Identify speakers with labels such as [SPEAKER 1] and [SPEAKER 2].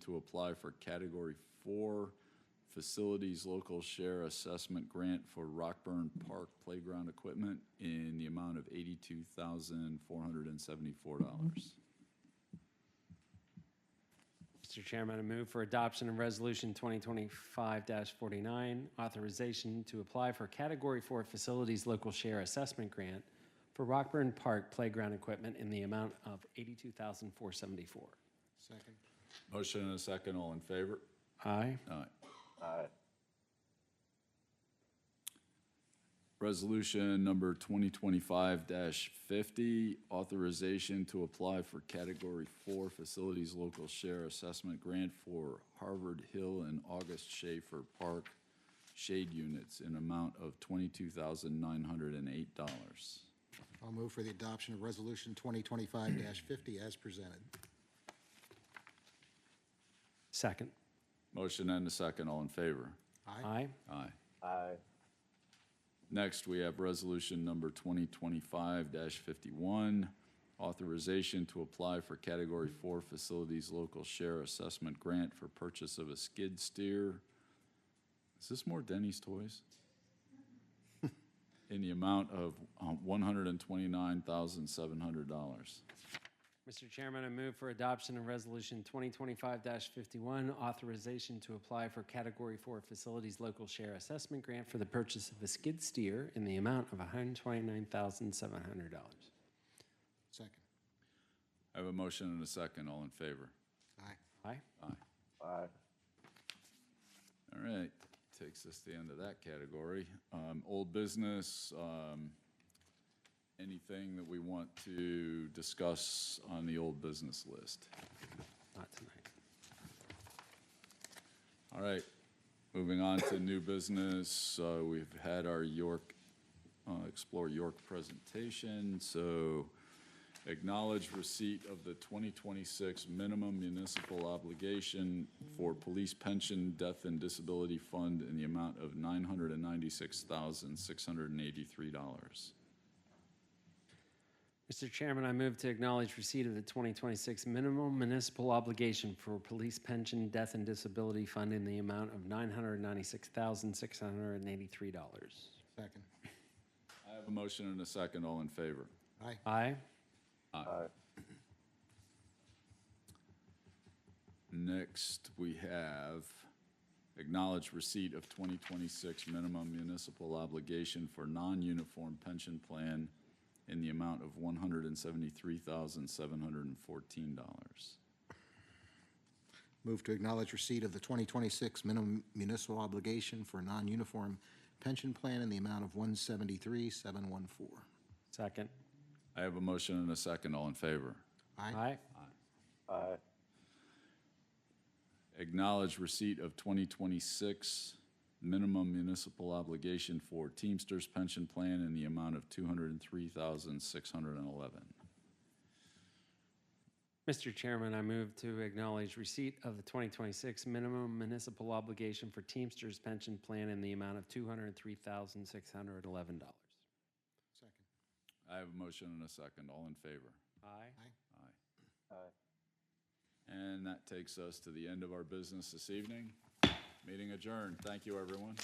[SPEAKER 1] to apply for Category 4 Facilities Local Share Assessment Grant for Rockburn Park Playground Equipment in the amount of $82,474.
[SPEAKER 2] Mr. Chairman, I move for adoption of Resolution 2025-49, authorization to apply for Category 4 Facilities Local Share Assessment Grant for Rockburn Park Playground Equipment in the amount of $82,474.
[SPEAKER 3] Second.
[SPEAKER 1] Motion and a second, all in favor?
[SPEAKER 2] Aye.
[SPEAKER 1] Aye. Resolution number 2025-50, authorization to apply for Category 4 Facilities Local Share Assessment Grant for Harvard Hill and August Schaefer Park Shade Units in amount of $22,908.
[SPEAKER 3] I'll move for the adoption of Resolution 2025-50 as presented.
[SPEAKER 2] Second.
[SPEAKER 1] Motion and a second, all in favor?
[SPEAKER 3] Aye.
[SPEAKER 2] Aye.
[SPEAKER 1] Aye. Aye. Next, we have resolution number 2025-51, authorization to apply for Category 4 Facilities Local Share Assessment Grant for purchase of a skid steer. Is this more Denny's Toys? In the amount of um, $129,700.
[SPEAKER 2] Mr. Chairman, I move for adoption of Resolution 2025-51, authorization to apply for Category 4 Facilities Local Share Assessment Grant for the purchase of a skid steer in the amount of $129,700.
[SPEAKER 3] Second.
[SPEAKER 1] I have a motion and a second. All in favor?
[SPEAKER 3] Aye.
[SPEAKER 2] Aye.
[SPEAKER 1] All right, takes us to the end of that category. Um, Old business, um, anything that we want to discuss on the old business list?
[SPEAKER 2] Not tonight.
[SPEAKER 1] All right, moving on to new business. Uh, We've had our York, uh, Explore York presentation, so acknowledge receipt of the 2026 minimum municipal obligation for police pension, death, and disability fund in the amount of $996,683.
[SPEAKER 2] Mr. Chairman, I move to acknowledge receipt of the 2026 minimum municipal obligation for police pension, death, and disability fund in the amount of $996,683.
[SPEAKER 3] Second.
[SPEAKER 1] I have a motion and a second. All in favor?
[SPEAKER 3] Aye.
[SPEAKER 2] Aye.
[SPEAKER 1] Next, we have acknowledged receipt of 2026 minimum municipal obligation for non-uniform pension plan in the amount of $173,714.
[SPEAKER 3] Move to acknowledge receipt of the 2026 minimum municipal obligation for non-uniform pension plan in the amount of 173,714.
[SPEAKER 2] Second.
[SPEAKER 1] I have a motion and a second. All in favor?
[SPEAKER 3] Aye.
[SPEAKER 2] Aye.
[SPEAKER 1] Acknowledge receipt of 2026 minimum municipal obligation for Teamsters pension plan in the amount of $203,611.
[SPEAKER 2] Mr. Chairman, I move to acknowledge receipt of the 2026 minimum municipal obligation for Teamsters pension plan in the amount of $203,611.
[SPEAKER 3] Second.
[SPEAKER 1] I have a motion and a second. All in favor?
[SPEAKER 2] Aye.
[SPEAKER 1] And that takes us to the end of our business this evening. Meeting adjourned. Thank you, everyone.